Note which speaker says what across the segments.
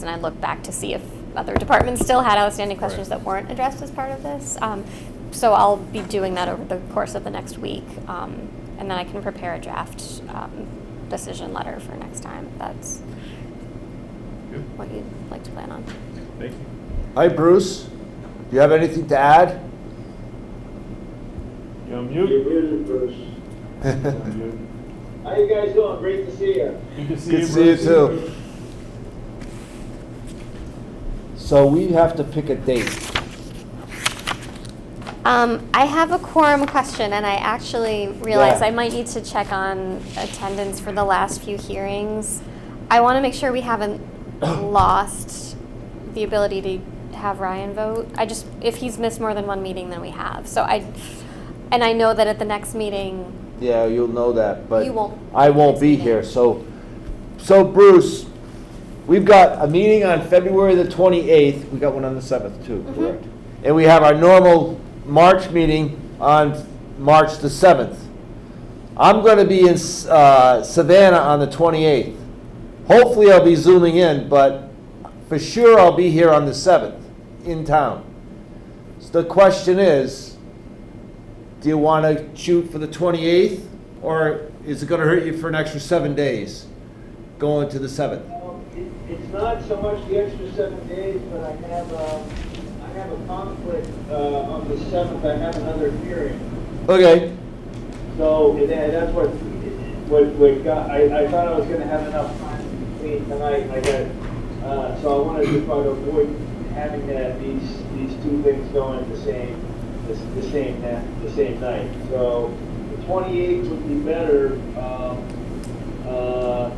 Speaker 1: And I looked back to see if other departments still had outstanding questions that weren't addressed as part of this. Um, So I'll be doing that over the course of the next week. um, And then I can prepare a draft um, decision letter for next time. if That's
Speaker 2: Good.
Speaker 1: what you'd like to plan on.
Speaker 2: Thank you.
Speaker 3: Hi, Bruce. Do you have anything to add?
Speaker 2: You on
Speaker 4: You're
Speaker 2: mute?
Speaker 4: muted, Bruce.
Speaker 2: On mute.
Speaker 4: How you guys doing? Great to see you.
Speaker 2: Good to see
Speaker 3: Good
Speaker 2: you,
Speaker 3: to see you
Speaker 2: Bruce.
Speaker 3: too. So we have to pick a date.
Speaker 1: Um, I have a quorum question, and I actually realize
Speaker 3: Yeah.
Speaker 1: I might need to check on attendance for the last few hearings. I want to make sure we haven't lost the ability to have Ryan vote. I just, if he's missed more than one meeting, then we have. So I, and I know that at the next meeting,
Speaker 3: Yeah, you'll know that, but
Speaker 1: You won't.
Speaker 3: I won't be here. So, so Bruce, we've got a meeting on February the 28th. We got one on the 7th too,
Speaker 1: Mm-hmm.
Speaker 3: correct? And we have our normal March meeting on March the 7th. I'm going to be in uh, Savannah on the 28th. Hopefully, I'll be zooming in, but for sure, I'll be here on the 7th in town. So the question is, do you want to shoot for the 28th, or is it going to hurt you for an extra seven days going to the 7th?
Speaker 4: Um, it- It's not so much the extra seven days, but I have, uh, I have a conflict uh, on the seventh. I have another hearing.
Speaker 3: Okay,
Speaker 4: So, and that- that's what, what, what got, I, I thought I was gonna have enough time to clean tonight. I got, uh, so I wanted to try to avoid having that, these, these two things going the same, the, the same, na- the same night. So the twenty-eighth would be better, um, uh, uh,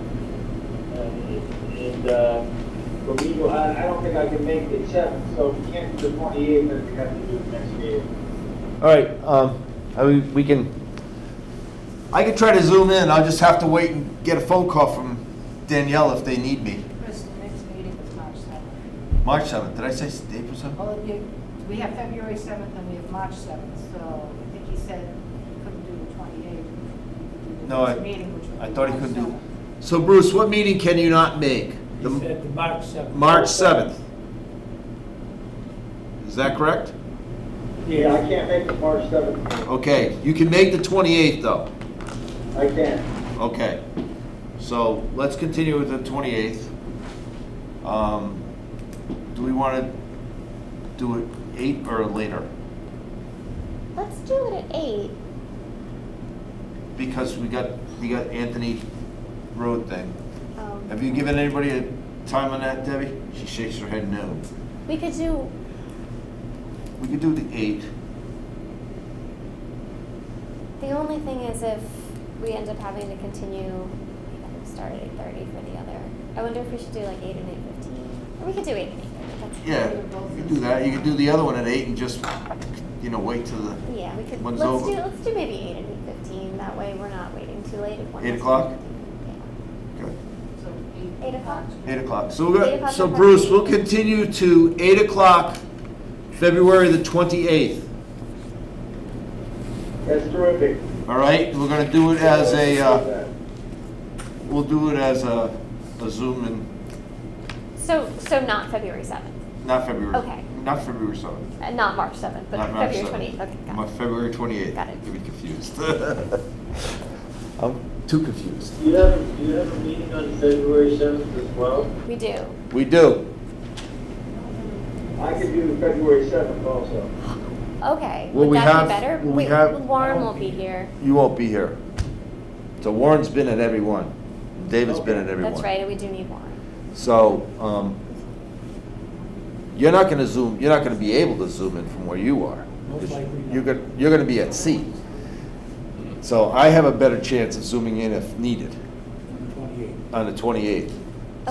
Speaker 4: And, uh, but we go, I, I don't think I can make the seventh, so if we can't do the twenty-eighth, then we have to do the next meeting.
Speaker 3: all right, um, I mean, we can, I can try to zoom in, I'll just have to wait and get a phone call from Danielle if they need me.
Speaker 5: Chris, the next meeting is March 7th.
Speaker 3: March 7th, did I say April 7th?
Speaker 5: Well, you- we have February 7th and we have March 7th, so I think he said he couldn't do the 28th. He could do the
Speaker 3: No,
Speaker 5: next
Speaker 3: I-
Speaker 5: meeting, which would
Speaker 3: I
Speaker 5: be
Speaker 3: thought he
Speaker 5: March
Speaker 3: couldn't
Speaker 5: 7th.
Speaker 3: do, so Bruce, what meeting can you not make? The-
Speaker 6: He said the March 7th.
Speaker 3: March 7th? Is that correct?
Speaker 4: Yeah, I can't make the March seventh,
Speaker 3: Okay, you can make the 28th though.
Speaker 4: I can't.
Speaker 3: Okay, so let's continue with the 28th. Um, Do we want to do it eight or later?
Speaker 1: let's do it at eight.
Speaker 3: Because we got, we got Anthony Road thing.
Speaker 1: Um,
Speaker 3: Have you given anybody a time on that, Debbie? She shakes her head no.
Speaker 1: We could do,
Speaker 3: We could do the eight.
Speaker 1: the only thing is if we end up having to continue, start at eight-thirty for the other. I wonder if we should do like eight and eight-fifteen, or we could do eight and eight-thirty.
Speaker 3: Yeah, you could do that. You could do the other one at eight and just, you know, wait till the,
Speaker 1: Yeah, we could,
Speaker 3: One's
Speaker 1: let's
Speaker 3: over.
Speaker 1: do, let's do maybe eight and eight fifteen, that way we're not waiting too late if one.
Speaker 3: Eight
Speaker 1: has to-
Speaker 3: o'clock?
Speaker 1: Yeah.
Speaker 3: Good.
Speaker 5: So
Speaker 1: Eight o'clock?
Speaker 3: Eight o'clock. So we're,
Speaker 1: Eight
Speaker 3: gonna-
Speaker 1: o'clock
Speaker 3: so
Speaker 1: on
Speaker 3: Bruce,
Speaker 1: Friday.
Speaker 3: we'll continue to eight o'clock, February the twenty-eighth.
Speaker 4: That's terrific.
Speaker 3: All right, we're gonna do it as a, uh, we'll do it as a, a Zoom and,
Speaker 1: So, so not February seventh,
Speaker 3: not February.
Speaker 1: Okay.
Speaker 3: Not February seventh.
Speaker 1: uh, not March seventh, but
Speaker 3: Not March
Speaker 1: February
Speaker 3: 7th.
Speaker 1: twenty-eighth, okay, got
Speaker 3: Not
Speaker 1: it.
Speaker 3: February twenty-eighth.
Speaker 1: Got it.
Speaker 3: Get me confused. I'm too confused.
Speaker 4: Do you have, a- do you have a meeting on February seventh as well?
Speaker 1: We do.
Speaker 3: We do.
Speaker 4: I could do February seventh also.
Speaker 1: Okay,
Speaker 3: Will
Speaker 1: would
Speaker 3: we
Speaker 1: that
Speaker 3: have-
Speaker 1: be better?
Speaker 3: will we
Speaker 1: Wait,
Speaker 3: have-
Speaker 1: Warren won't be here.
Speaker 3: You won't be here. So Warren's been at every one. David's been at every one.
Speaker 1: That's right, we do need Warren.
Speaker 3: So, um, you're not gonna zoom, you're not gonna be able to zoom in from where you are.
Speaker 6: Most likely not.
Speaker 3: You're gonna, you're gonna be at sea. So I have a better chance of zooming in if needed
Speaker 6: on the 28th.
Speaker 3: on the twenty-eighth.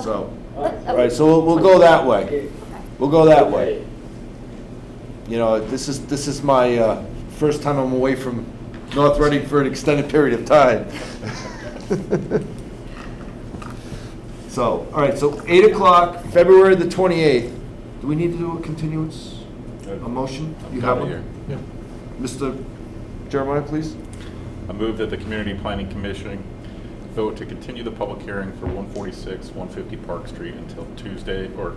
Speaker 3: So,
Speaker 1: Let-
Speaker 3: all right, so we'll, we'll go that way.
Speaker 4: Okay.
Speaker 1: Okay.
Speaker 3: We'll go that way. You know, this is, this is my, uh, first time I'm away from North Reading for an extended period of time. So, all right, so eight o'clock, February the twenty-eighth. Do we need to do a continuance, a motion? You have
Speaker 2: Outta
Speaker 3: one?
Speaker 2: here.
Speaker 3: Mr. Jeremiah, please?
Speaker 2: I move that the Community Planning Commission vote to continue the public hearing for 146, 150 Park Street until Tuesday, or